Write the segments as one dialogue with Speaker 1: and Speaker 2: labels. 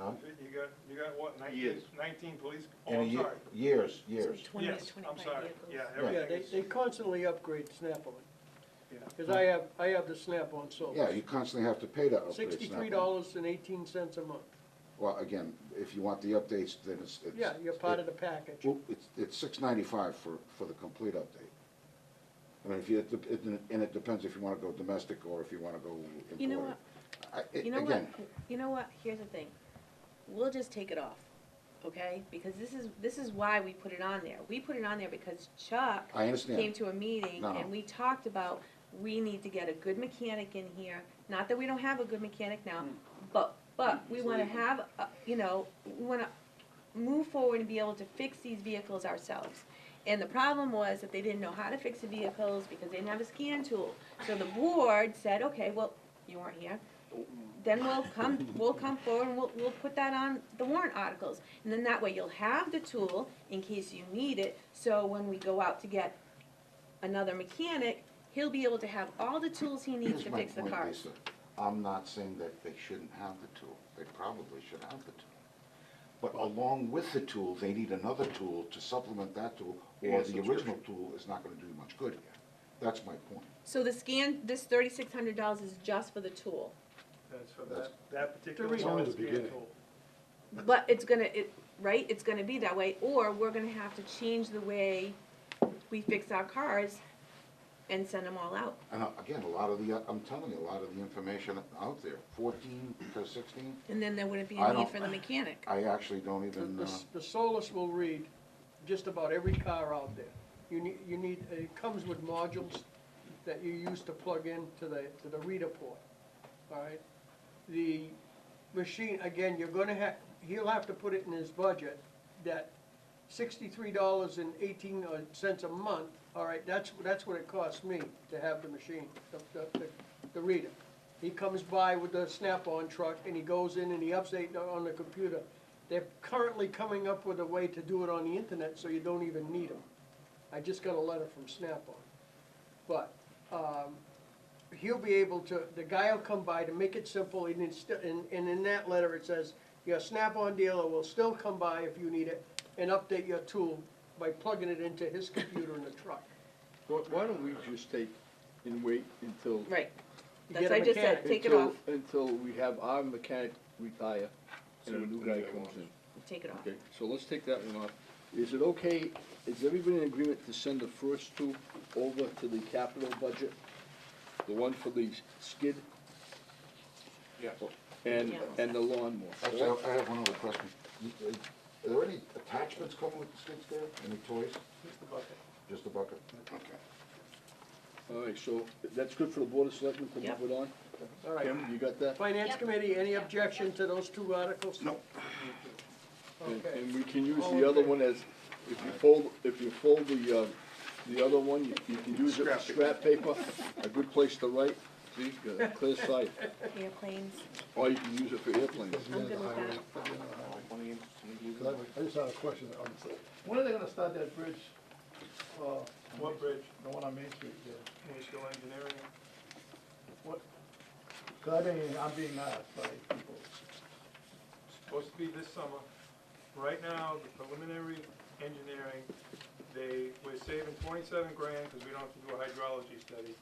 Speaker 1: You got, you got what, nineteen,
Speaker 2: Years.
Speaker 1: nineteen police, oh,
Speaker 3: In a
Speaker 1: I'm
Speaker 3: ye-
Speaker 1: sorry.
Speaker 3: Years, years.
Speaker 4: Twenty to
Speaker 1: Yes,
Speaker 4: twenty-five
Speaker 1: I'm sorry,
Speaker 4: vehicles.
Speaker 1: yeah,
Speaker 5: Yeah,
Speaker 1: everything
Speaker 5: they,
Speaker 1: is,
Speaker 5: they constantly upgrade Snap-on,
Speaker 1: yeah.
Speaker 5: because I have, I have the Snap-on
Speaker 3: Yeah,
Speaker 5: Solus.
Speaker 3: you constantly have to pay to upgrade. Snap-on.
Speaker 5: Sixty-three dollars and eighteen cents a month.
Speaker 3: Well, again, if you want the updates, then it's, it's.
Speaker 5: Yeah, you're part of the package.
Speaker 3: Well, it's, it's six ninety-five for, for the complete update. I mean, if you, it- it- and it depends if you wanna go domestic or if you wanna go imported.
Speaker 4: You know what?
Speaker 3: I, it-
Speaker 4: You know what,
Speaker 3: again,
Speaker 4: you know what, here's the thing, we'll just take it off, okay? Because this is, this is why we put it on there, we put it on there because Chuck
Speaker 3: I understand.
Speaker 4: came to a meeting
Speaker 3: No, no.
Speaker 4: and we talked about, we need to get a good mechanic in here, not that we don't have a good mechanic now,
Speaker 1: Mm.
Speaker 4: but, but we wanna have, a- you know, we wanna move forward and be able to fix these vehicles ourselves. And the problem was that they didn't know how to fix the vehicles because they didn't have a scan tool. So the board said, okay, well, you weren't here, then we'll come, we'll come forward and we'll, we'll put that on the warrant articles. And then that way you'll have the tool in case you need it, so when we go out to get another mechanic, he'll be able to have all the tools he needs
Speaker 3: here's
Speaker 4: to
Speaker 3: my
Speaker 4: fix the
Speaker 3: point,
Speaker 4: cars.
Speaker 3: Lisa. I'm not saying that they shouldn't have the tool, they probably should have the tool. But along with the tool, they need another tool to supplement that tool, or the original tool is not gonna do much good here. That's my point.
Speaker 4: So the scan, this thirty-six hundred dollars is just for the tool,
Speaker 1: That's for
Speaker 3: That's-
Speaker 1: that, that particular
Speaker 5: It's only
Speaker 1: one
Speaker 6: the
Speaker 1: scan
Speaker 6: beginning.
Speaker 1: tool.
Speaker 4: but it's gonna, it, right, it's gonna be that way, or we're gonna have to change the way we fix our cars and send them all out.
Speaker 3: And uh, again, a lot of the, uh, I'm telling you, a lot of the information out there, fourteen to sixteen,
Speaker 4: And then there wouldn't be
Speaker 3: I
Speaker 4: a need
Speaker 3: don't-
Speaker 4: for the mechanic.
Speaker 3: I actually don't
Speaker 5: The,
Speaker 3: even,
Speaker 5: the
Speaker 3: uh,
Speaker 5: s- the Solus will read just about every car out there. You need, you need, it comes with modules that you use to plug in to the, to the reader port, all right? The machine, again, you're gonna have, he'll have to put it in his budget, that sixty-three dollars and eighteen uh, cents a month, all right, that's, that's what it costs me to have the machine, the, the, the- the reader. He comes by with the Snap-on truck and he goes in and he updates it on the computer. They're currently coming up with a way to do it on the internet, so you don't even need them. I just got a letter from Snap-on. But, um, he'll be able to, the guy will come by to make it simple, and it's, sti- and, and in that letter, it says, your Snap-on dealer will still come by if you need it, and update your tool by plugging it into his computer in the truck.
Speaker 6: Why, why don't we just take and wait until?
Speaker 4: Right,
Speaker 5: You
Speaker 4: that's
Speaker 5: get a
Speaker 4: what I just said,
Speaker 5: mechanic.
Speaker 4: take it
Speaker 6: until-
Speaker 4: off,
Speaker 6: Until we have our mechanic retire and a new guy comes in.
Speaker 4: take it off.
Speaker 6: Okay, so let's take that one off. Is it okay, is everybody in agreement to send the first two over to the capital budget? The one for the skid? Yeah. And,
Speaker 4: Yeah.
Speaker 6: and the lawnmower.
Speaker 3: uh, actually, I I have one other question. You- uh, Are there any attachments coming with the skid steer? Any toys?
Speaker 1: Just the bucket.
Speaker 3: Just a bucket? Okay.
Speaker 6: All right, so that's good for the board of selectmen to move it on?
Speaker 5: All right.
Speaker 6: Kim, you got that?
Speaker 5: Finance Committee, any objection to those two articles? No.
Speaker 6: And,
Speaker 5: Okay.
Speaker 6: and we can use
Speaker 5: All in
Speaker 6: the other
Speaker 5: favor?
Speaker 6: one as, if you fold, if you fold the, uh, the other one, you, you can use it for scrap paper, a good place to write, see, got a clear sight.
Speaker 4: Airplanes,
Speaker 6: Or you can use it for airplanes.
Speaker 4: I'm good with that.
Speaker 7: Because I, I just had a question, on this. when are they gonna start that bridge? uh, on
Speaker 1: What
Speaker 7: Main-
Speaker 1: bridge?
Speaker 7: The one on Main Street there?
Speaker 1: We're still engineering it.
Speaker 7: What? Cause I mean, I'm being asked by people.
Speaker 1: supposed to be this summer. Right now, the preliminary engineering, they, we're saving twenty-seven grand because we don't have to do a hydrology study.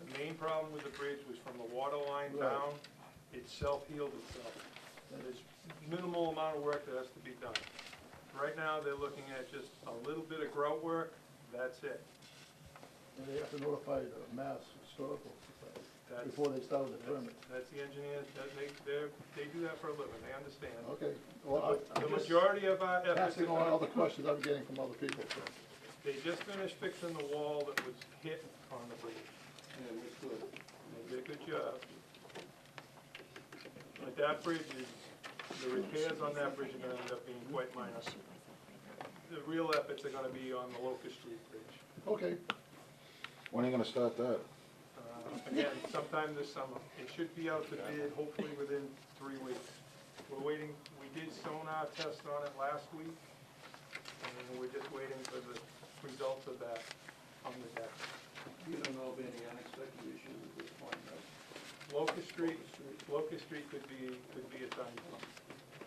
Speaker 1: The main problem with the bridge was from the water line
Speaker 7: Right.
Speaker 1: down, it self-healed itself. And There's minimal amount of work that has to be done. Right now, they're looking at just a little bit of grout work, that's it.
Speaker 7: and They have to notify the Mass Historical Society
Speaker 1: That's-
Speaker 7: before they start with the
Speaker 1: That's,
Speaker 7: permit.
Speaker 1: that's the engineers, that they, they're, they do that for a living, they understand.
Speaker 7: Okay, well, I-
Speaker 1: The
Speaker 7: I'm just
Speaker 1: majority of our efforts.
Speaker 7: passing on all the questions I'm getting from other people. so.
Speaker 1: They just finished fixing the wall that was hit on the bridge. They did a good job. But that bridge is, the repairs on that bridge are gonna end up being quite minor. The real efforts are gonna be on the Locust Street Bridge.
Speaker 7: Okay,
Speaker 3: When are you gonna start that?
Speaker 1: Uh, Again, sometime this summer. It should be out to bid hopefully within three weeks. We're waiting, we did sonar test on it last week, and we're just waiting for the results of that on the deck.
Speaker 8: You don't know of any unexpected issues at this point, right?
Speaker 1: Locust Street, Locust Street could be, could be a time bomb.